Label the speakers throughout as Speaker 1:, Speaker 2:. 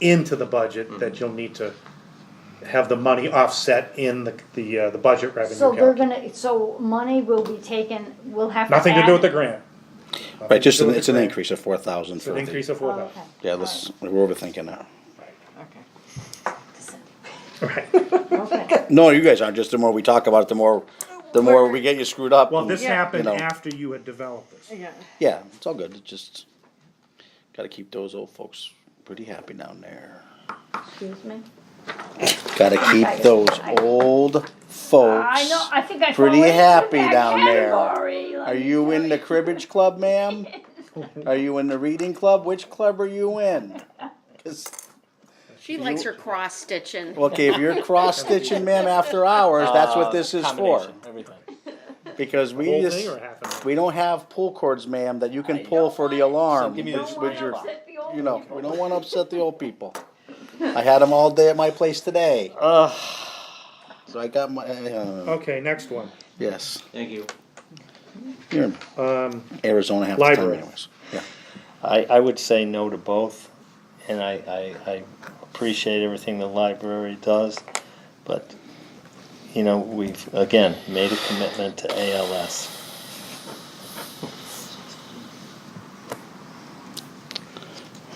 Speaker 1: into the budget that you'll need to have the money offset in the, the, uh, the budget revenue
Speaker 2: So they're
Speaker 1: calculation.
Speaker 2: gonna, so money will be taken, we'll have to
Speaker 1: Nothing to
Speaker 2: add-
Speaker 1: do with the grant. Nothing
Speaker 3: Right, just,
Speaker 1: to do
Speaker 3: an-
Speaker 1: with
Speaker 3: it's
Speaker 1: the
Speaker 3: an
Speaker 1: grant.
Speaker 3: increase of four thousand
Speaker 1: It's an
Speaker 3: for
Speaker 1: increase
Speaker 3: the,
Speaker 1: of
Speaker 2: Oh,
Speaker 1: four
Speaker 2: okay.
Speaker 1: thousand.
Speaker 3: yeah, let's, we're overthinking that.
Speaker 4: Okay.
Speaker 1: Right.
Speaker 2: Okay,
Speaker 3: No, you guys aren't, just the more we talk about it, the more, the more we get you screwed up.
Speaker 1: Well,
Speaker 3: and,
Speaker 1: this
Speaker 3: you
Speaker 1: happened
Speaker 3: know.
Speaker 1: after you had developed this.
Speaker 4: Yeah.
Speaker 3: Yeah, it's all good, it's just, gotta keep those old folks pretty happy down there.
Speaker 2: excuse me.
Speaker 3: Gotta keep those old folks.
Speaker 2: I know, I think I fall
Speaker 3: pretty
Speaker 2: into that
Speaker 3: happy down there.
Speaker 2: category, let
Speaker 3: Are
Speaker 2: me
Speaker 3: you
Speaker 2: tell
Speaker 3: in the cribbage club, ma'am? Are you in the reading club? Which club are you in? 'Cause-
Speaker 5: She likes her cross stitching.
Speaker 3: Okay, if you're cross stitching, ma'am, after hours, that's what this is for.
Speaker 6: Uh, Combination, Everything.
Speaker 3: Because we
Speaker 1: Whole thing or
Speaker 3: just,
Speaker 1: half of it?
Speaker 3: we don't have pull cords, ma'am, that you can pull for the alarm.
Speaker 6: So give me
Speaker 3: with-
Speaker 6: this
Speaker 3: with your-
Speaker 2: Upset the old
Speaker 3: You know, we don't wanna upset the old people. I had them all day at my place today,
Speaker 6: Ugh,
Speaker 3: so I got my, uh,
Speaker 1: Okay, next one.
Speaker 3: yes.
Speaker 6: thank you.
Speaker 3: You're in
Speaker 1: Um,
Speaker 3: Arizona half the time
Speaker 1: Library.
Speaker 3: anyways. Yeah.
Speaker 6: I, I would say no to both, and I, I, I appreciate everything the library does, but, you know, we've, again, made a commitment to ALS.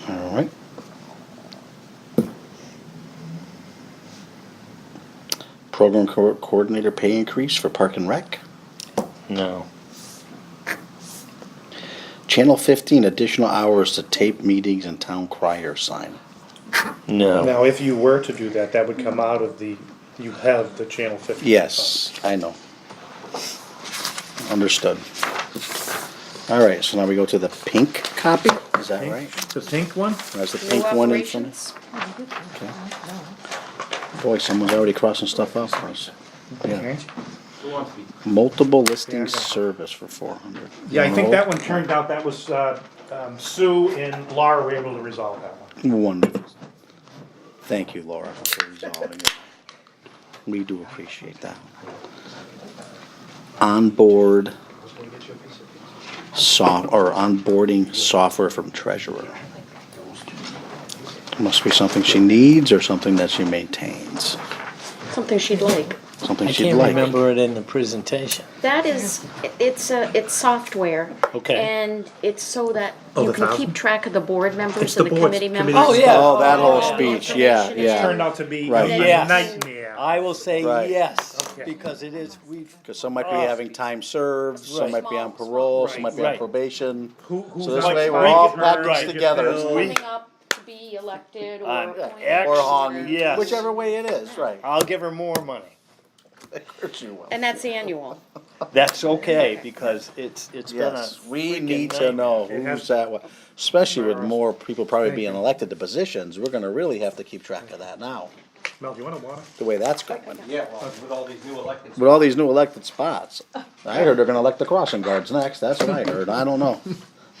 Speaker 3: All right. Program co- coordinator pay increase for Park and Rec.
Speaker 6: No.
Speaker 3: Channel 15 additional hours to tape meetings and town crier sign.
Speaker 6: No.
Speaker 1: now, if you were to do that, that would come out of the, you have the channel fifty.
Speaker 3: Yes, I know. Understood. All right, so now we go to the pink copy. Is that right?
Speaker 1: The pink one?
Speaker 3: That's the
Speaker 5: New
Speaker 3: pink one in front.
Speaker 5: operations.
Speaker 3: Boy, someone's already crossing stuff off for us. Yeah.
Speaker 1: Okay.
Speaker 3: Multiple listing
Speaker 1: Yeah, I got it.
Speaker 3: service for 400.
Speaker 1: Yeah, I think
Speaker 3: No.
Speaker 1: that one turned out, that was, uh, um, Sue and Laura were able to resolve that one.
Speaker 3: Wonderful. Thank you, Laura, for resolving it. We do appreciate that. Onboard soft, or onboarding software from treasurer. Must be something she needs or something that she maintains,
Speaker 5: Something she'd like.
Speaker 3: something
Speaker 6: I
Speaker 3: she'd
Speaker 6: can't
Speaker 3: like.
Speaker 6: remember it in the presentation.
Speaker 5: That is, it's a, it's software.
Speaker 6: Okay.
Speaker 5: And it's so that
Speaker 1: Oh,
Speaker 5: you
Speaker 1: the
Speaker 5: can
Speaker 1: thousand?
Speaker 5: keep track of the board members
Speaker 1: It's the
Speaker 5: and the
Speaker 1: boards,
Speaker 5: committee members.
Speaker 1: committees. Oh,
Speaker 6: yeah.
Speaker 3: Oh, that whole
Speaker 5: All the
Speaker 3: speech, yeah,
Speaker 5: information is
Speaker 1: Turned
Speaker 3: yeah.
Speaker 1: out to be
Speaker 3: Right.
Speaker 1: a
Speaker 6: Yes.
Speaker 1: nightmare.
Speaker 6: I will say
Speaker 3: Right.
Speaker 6: yes,
Speaker 1: Okay.
Speaker 6: because it is, we've,
Speaker 3: Because some might be having time served, some
Speaker 6: Right.
Speaker 3: might be on parole, some might be on
Speaker 6: Right.
Speaker 3: probation.
Speaker 1: Who- who's
Speaker 3: So this
Speaker 1: on
Speaker 3: way, we're
Speaker 1: strike,
Speaker 3: all
Speaker 1: who's
Speaker 3: packaged
Speaker 1: right,
Speaker 3: together.
Speaker 1: who's
Speaker 3: Or
Speaker 5: Coming up to be elected or
Speaker 6: On
Speaker 5: appointed.
Speaker 6: X.
Speaker 3: on,
Speaker 6: Yes.
Speaker 3: whichever way it is, right.
Speaker 6: I'll give her more money.
Speaker 3: Of course you will.
Speaker 5: And that's annual.
Speaker 6: That's okay, because it's, it's been a
Speaker 3: Yes, we
Speaker 6: freaking
Speaker 3: need to
Speaker 6: nightmare.
Speaker 3: know
Speaker 1: It has-
Speaker 3: who's that way, especially with more people probably being elected to positions, we're gonna really have to keep track of that now,
Speaker 1: Mel, do you want a water?
Speaker 3: the way that's going.
Speaker 7: Yeah, well, with all these new elected
Speaker 3: With all these new elected spots, I heard they're gonna elect the crossing guards next, that's what I heard, I don't know.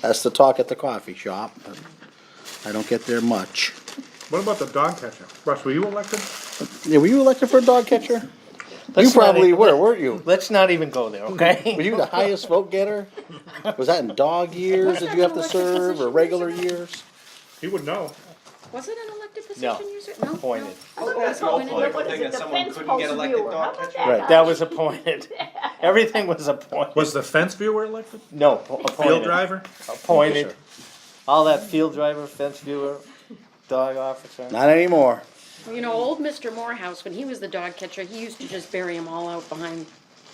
Speaker 3: That's the talk at the coffee shop, but I don't get there much.
Speaker 1: What about the dog catcher? Russ, were you elected?
Speaker 3: Yeah, were you elected for a dog catcher? You
Speaker 6: Let's not
Speaker 3: probably
Speaker 6: e-
Speaker 3: were, weren't you?
Speaker 6: Let's not even go there, okay?
Speaker 3: Were you the highest vote getter? Was that in dog years, did you have to serve, or regular years?
Speaker 1: He would know.
Speaker 5: Was it an elected
Speaker 6: No.
Speaker 5: position user? No.
Speaker 6: Appointed.
Speaker 5: Oh,
Speaker 7: That's
Speaker 5: it's appointed.
Speaker 7: hopefully
Speaker 2: What is
Speaker 7: thing
Speaker 2: it,
Speaker 7: that
Speaker 2: the
Speaker 7: someone
Speaker 2: fence
Speaker 7: couldn't get
Speaker 2: post
Speaker 7: elected
Speaker 2: viewer? How
Speaker 7: dog
Speaker 2: about
Speaker 7: catcher.
Speaker 3: Right.
Speaker 6: That was appointed. Everything was appointed.
Speaker 1: Was the fence viewer elected?
Speaker 6: No, appointed.
Speaker 3: Oh,
Speaker 1: Field driver?
Speaker 6: Appointed. All that field driver, fence viewer, dog officer.
Speaker 3: Not anymore.
Speaker 5: You know, old Mr. Morehouse, when he was the dog catcher, he used to just bury them all out behind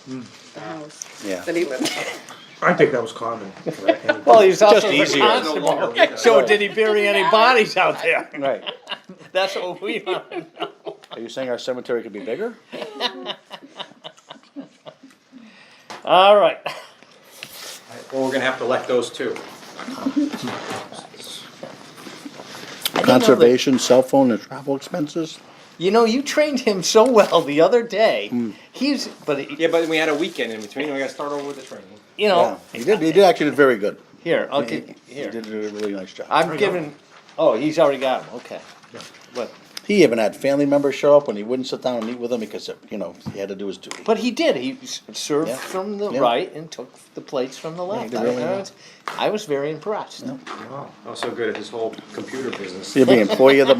Speaker 6: Hmm.
Speaker 5: the house
Speaker 3: Yeah.
Speaker 5: that he lived in.
Speaker 1: I think that was common.
Speaker 6: Well, he was also
Speaker 3: easier.
Speaker 6: the constable. So did he bury any bodies out there?
Speaker 3: Right.
Speaker 6: That's what we want. to know.
Speaker 3: Are you saying our cemetery could be bigger?
Speaker 6: All right.
Speaker 7: Well, we're gonna have to elect those two.
Speaker 3: Conservation, cell phone, and travel expenses?
Speaker 6: You know, you trained him so well the other day.
Speaker 3: Hmm.
Speaker 6: He's, but he-
Speaker 7: Yeah, but we had a weekend in between, we gotta start over with the training.
Speaker 6: you know,
Speaker 3: He did, he did actually did very good.
Speaker 6: here, I'll
Speaker 3: He
Speaker 6: give,
Speaker 3: he
Speaker 6: here.
Speaker 3: did a really nice job.
Speaker 6: I'm giving, oh, he's already got him, okay. But,
Speaker 3: He even had family members show up when he wouldn't sit down and eat with them because, you know, he had to do his duty.
Speaker 6: but he did, he s- served
Speaker 3: Yeah.
Speaker 6: from the
Speaker 3: Yeah.
Speaker 6: right and took the plates from the left.
Speaker 3: did
Speaker 6: I
Speaker 3: really
Speaker 6: I
Speaker 3: well.
Speaker 6: was- I was very impressed.
Speaker 7: Oh, so good at this whole computer business.
Speaker 3: He'll be employee of the